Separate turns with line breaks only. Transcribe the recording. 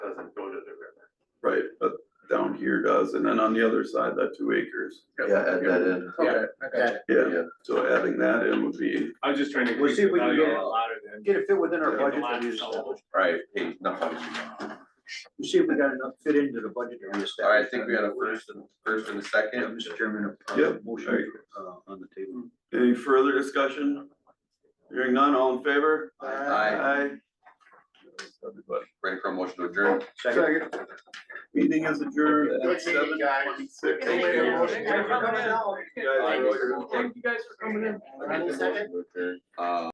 here does, and then on the other side, that two acres.
Yeah, uh, add that in,
Okay, okay.
Yeah, so adding that in would be,
I was just trying to.
We'll see if we can
value
get it.
a lot of them.
Get it fit within our
Yeah,
budget
the
that we
line is
established.
right, hey, not funny.
We'll see if we got enough fit into the budget that we established.
All right, I think we had a first and, first and a
Yeah,
second,
Mr. Chairman, a-
Yeah,
a motion uh, on the table.
any further discussion? Hearing none, all in favor?
Aye.
Aye. Everybody.
ready for a motion to adjourn?
Second.
Meeting is adjourned at
Good meeting, guys.
7:26.
Thank you.
Guys,
Thank you guys for coming in.
Uh,